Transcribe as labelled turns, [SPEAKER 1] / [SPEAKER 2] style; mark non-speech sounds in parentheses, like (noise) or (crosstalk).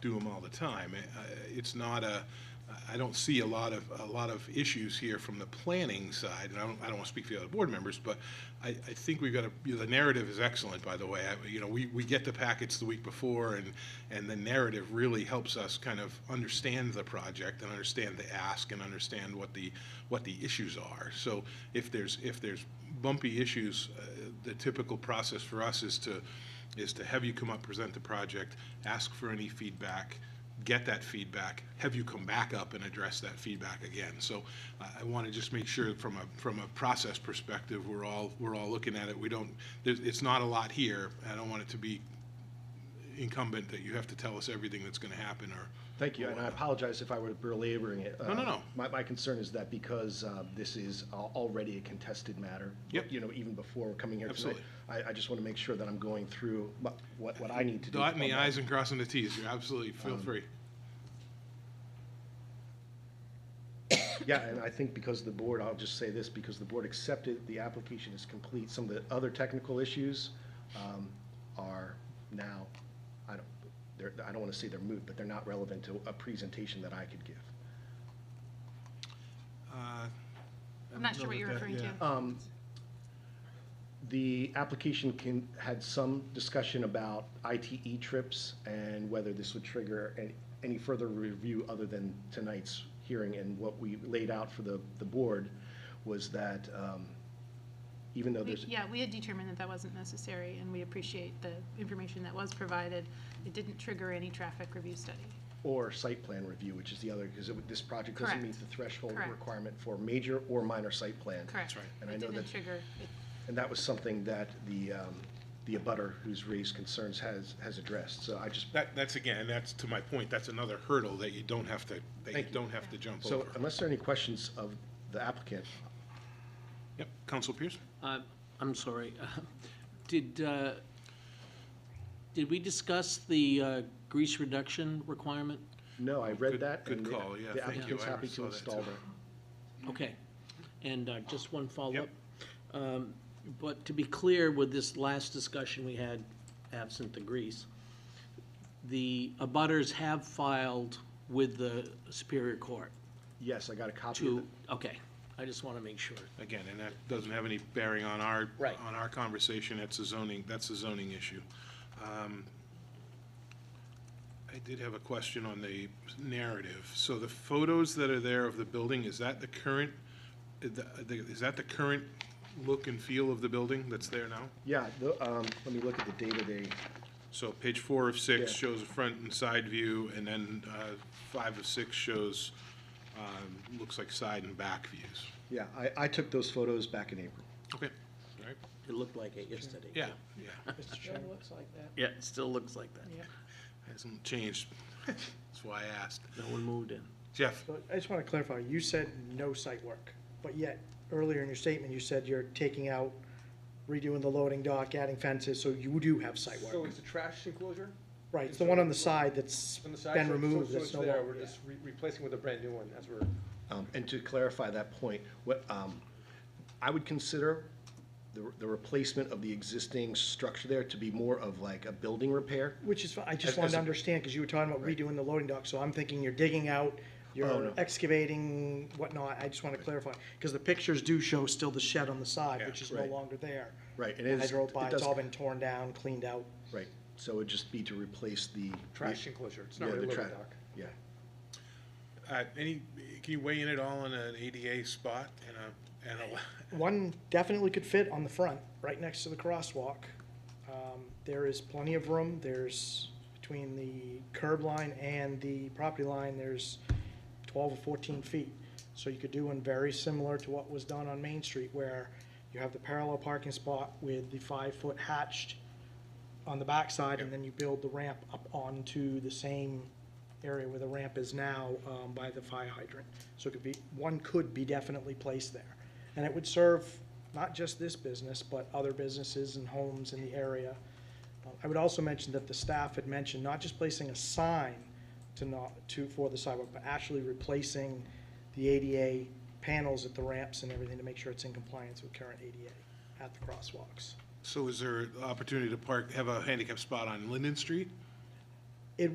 [SPEAKER 1] do them all the time. I- I- It's not a, I don't see a lot of, a lot of issues here from the planning side, and I don't, I don't want to speak for the other board members, but I, I think we've got to, the narrative is excellent, by the way. I- You know, we, we get the packets the week before, and, and the narrative really helps us kind of understand the project and understand the ask and understand what the, what the issues are. So if there's, if there's bumpy issues, uh, the typical process for us is to, is to have you come up, present the project, ask for any feedback, get that feedback, have you come back up and address that feedback again. So uh, I, I want to just make sure from a, from a process perspective, we're all, we're all looking at it. We don't, there's, it's not a lot here. I don't want it to be incumbent that you have to tell us everything that's going to happen or.
[SPEAKER 2] Thank you, and I apologize if I were belaboring it.
[SPEAKER 1] No, no, no.
[SPEAKER 2] Uh, My, my concern is that because uh, this is al- already a contested matter.
[SPEAKER 1] Yep.
[SPEAKER 2] You know, even before we're coming here tonight.
[SPEAKER 1] Absolutely.
[SPEAKER 2] I, I just want to make sure that I'm going through my- what, what I need to do. Um,
[SPEAKER 1] Dotting the
[SPEAKER 2] on that.
[SPEAKER 1] i's and crossing the t's, you're absolutely, feel free.
[SPEAKER 2] Yeah, and I think because the board, I'll just say this, because the board accepted the application is complete, some of the other technical issues um, are now, I don't, they're, I don't want to say they're moot, but they're not relevant to a presentation that I could give.
[SPEAKER 1] Uh,
[SPEAKER 3] I'm not sure what you're referring to.
[SPEAKER 2] Um, The application can, had some discussion about ITE trips and whether this would trigger an- any further review other than tonight's hearing. And what we laid out for the, the board was that um, even though
[SPEAKER 3] We-
[SPEAKER 2] there's,
[SPEAKER 3] Yeah, we had determined that that wasn't necessary, and we appreciate the information that was provided. It didn't trigger any traffic review study.
[SPEAKER 2] or site plan review, which is the other, because this project doesn't
[SPEAKER 3] Correct.
[SPEAKER 2] meet the threshold
[SPEAKER 3] Correct.
[SPEAKER 2] requirement for major or minor site plan.
[SPEAKER 3] Correct.
[SPEAKER 1] right.
[SPEAKER 2] And I
[SPEAKER 3] It
[SPEAKER 2] know
[SPEAKER 3] didn't
[SPEAKER 2] that-
[SPEAKER 3] trigger, it-
[SPEAKER 2] And that was something that the, um, the abutter who's raised concerns has, has addressed. So I just
[SPEAKER 1] That, that's again, that's to my point, that's another hurdle that you don't have to, that you
[SPEAKER 2] Thank you.
[SPEAKER 1] don't have to jump
[SPEAKER 2] So uh,
[SPEAKER 1] over.
[SPEAKER 2] unless there are any questions of the applicant,
[SPEAKER 1] Yep, Council Pierce?
[SPEAKER 4] Uh, I'm sorry. (laughs) Did, uh, did we discuss the uh, grease reduction requirement?
[SPEAKER 2] no, I read
[SPEAKER 1] Good-
[SPEAKER 2] that.
[SPEAKER 1] good
[SPEAKER 2] and the-
[SPEAKER 1] call. Yeah,
[SPEAKER 2] The
[SPEAKER 1] thank you.
[SPEAKER 2] applicant's
[SPEAKER 1] I
[SPEAKER 2] happy to
[SPEAKER 1] saw that
[SPEAKER 2] install
[SPEAKER 1] too.
[SPEAKER 2] that.
[SPEAKER 4] Okay. And uh, just one follow-up. Um, But to be clear, with this last discussion we had, absent the grease, the abutters have filed with the Superior Court
[SPEAKER 2] Yes, I got a copy of
[SPEAKER 4] to,
[SPEAKER 2] it.
[SPEAKER 4] okay, I just want to make sure.
[SPEAKER 1] Again, and that doesn't have any bearing on our,
[SPEAKER 4] Right.
[SPEAKER 1] on our conversation, that's a zoning, that's a zoning issue. Um, I did have a question on the narrative. So the photos that are there of the building, is that the current, the- the- is that the current look and feel of the building that's there now?
[SPEAKER 2] Yeah, the, um, let me look at the data they,
[SPEAKER 1] So page four of six
[SPEAKER 2] Yeah.
[SPEAKER 1] shows a front and side view, and then uh, five of six shows, um, looks like side and back views.
[SPEAKER 2] yeah, I, I took those photos back in April.
[SPEAKER 1] Okay, all right,
[SPEAKER 4] It looked like it yesterday.
[SPEAKER 1] yeah, yeah,
[SPEAKER 5] Mr. Chairman? looks like that.
[SPEAKER 4] Yeah, it still looks like that.
[SPEAKER 1] hasn't changed, that's why I asked.
[SPEAKER 4] No one moved in.
[SPEAKER 1] Jeff,
[SPEAKER 5] So I just want to clarify, you said no site work, but yet earlier in your statement, you said you're taking out, redoing the loading dock, adding fences, so you do have site
[SPEAKER 6] So
[SPEAKER 5] work.
[SPEAKER 6] it's a trash enclosure
[SPEAKER 5] Right, it's the one on the side that's
[SPEAKER 6] on the side?
[SPEAKER 5] been
[SPEAKER 6] so- so-
[SPEAKER 5] removed,
[SPEAKER 6] So
[SPEAKER 5] that's
[SPEAKER 6] it's
[SPEAKER 5] no
[SPEAKER 6] there, we're
[SPEAKER 5] longer.
[SPEAKER 6] just re- replacing with a brand new one, that's where.
[SPEAKER 2] Um, and to clarify that point, what, um, I would consider the, the replacement of the existing structure there to be more of like a building repair.
[SPEAKER 5] Which is, fi- I
[SPEAKER 2] As-
[SPEAKER 5] just
[SPEAKER 2] as
[SPEAKER 5] wanted
[SPEAKER 2] a-
[SPEAKER 5] to understand, because you were talking about redoing the loading dock, so I'm thinking you're digging out,
[SPEAKER 6] Oh,
[SPEAKER 5] you're
[SPEAKER 2] no.
[SPEAKER 5] excavating, whatnot, I just want to clarify. Because the pictures do show still the shed on the side,
[SPEAKER 1] Yeah,
[SPEAKER 5] which is no
[SPEAKER 2] right.
[SPEAKER 5] longer there.
[SPEAKER 2] Right, and it
[SPEAKER 5] When I
[SPEAKER 2] is-
[SPEAKER 5] drove
[SPEAKER 2] it
[SPEAKER 5] by,
[SPEAKER 2] does-
[SPEAKER 5] it's all been torn down, cleaned out.
[SPEAKER 2] Right, so it'd just be to replace the.
[SPEAKER 6] Trash enclosure, it's
[SPEAKER 2] Yeah,
[SPEAKER 6] not
[SPEAKER 2] the
[SPEAKER 6] really a
[SPEAKER 2] tra-
[SPEAKER 6] loading dock.
[SPEAKER 2] Yeah.
[SPEAKER 1] uh, any, can you weigh in at all on an ADA spot and a, and a,
[SPEAKER 5] One definitely could fit on the front, right next to the crosswalk. Um, There is plenty of room, there's, between the curb line and the property line, there's twelve or fourteen feet. So you could do one very similar to what was done on Main Street, where you have the parallel parking spot with the five-foot hatched on the backside, and then you build the ramp up onto the same area where the ramp is now um, by the fire hydrant. So it could be, one could be definitely placed there. And it would serve not just this business, but other businesses and homes in the area. Uh, I would also mention that the staff had mentioned not just placing a sign to not, to, for the sidewalk, but actually replacing the ADA panels at the ramps and everything to make sure it's in compliance with current ADA at the crosswalks.
[SPEAKER 1] so is there opportunity to park, have a handicap spot on Linden Street?